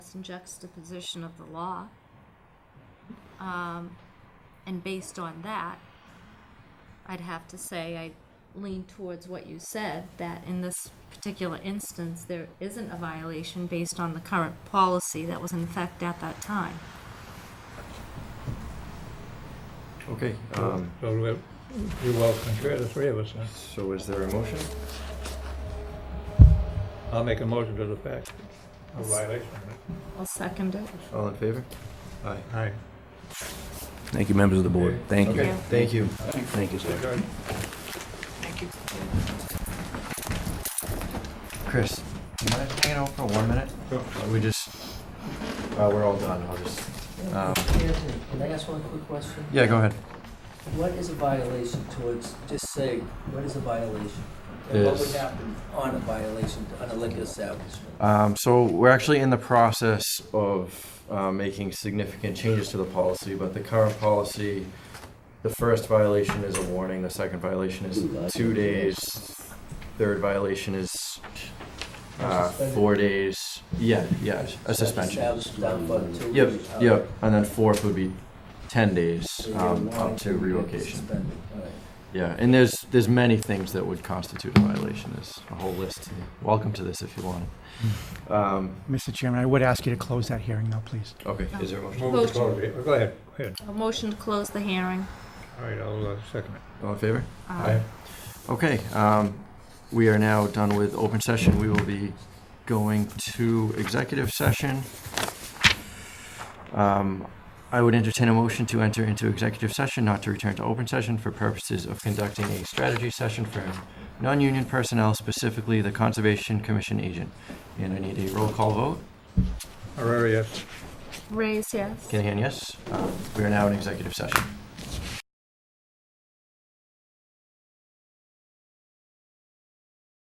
contrast and juxtaposition of the law. Um, and based on that, I'd have to say I lean towards what you said that in this particular instance, there isn't a violation based on the current policy that was in effect at that time. Okay, um, So we- you're welcome, sure, the three of us, huh? so is there a motion? I'll make a motion to the fact. A violation. I'll second it. All in favor? Aye. Aye. Thank you, members of the board. Thank Okay, you. thank you. Thank you, sir. Good. Chris, do you mind hanging out for one minute? We just, uh, we're all done, I'll just, um, Anthony, can I ask one quick question? yeah, go ahead. What is a violation towards, just say, what is a violation? And what would Is- happen on a violation, on a liquor establishment? Um, so we're actually in the process of uh, making significant changes to the policy, but the current policy, the first violation is a warning, the second violation is two days, third violation is uh, four days. Yeah, yeah, a suspension. Establishment down for two Yep, weeks, uh, all yep, right. and then fourth would be ten days So you're um, up warned, to you're relocation. suspended, all right. Yeah, and there's there's many things that would constitute a violation. There's a whole list. Welcome to this if you want. it. Um, Mr. Chairman, I would ask you to close that hearing now, please. okay, is there a motion? Move to close it. Go ahead, go ahead. A motion to close the hearing. All right, I'll uh, second it. All in favor? Um, Okay, um, we are now done with open session. We will be going to executive session. Um, I would entertain a motion to enter into executive session, not to return to open session for purposes of conducting a strategy session for non-union personnel, specifically the Conservation Commission agent. And I need a roll call vote. Aurora, yes. Raise yes. Can I hear yes? Uh, We are now in executive session.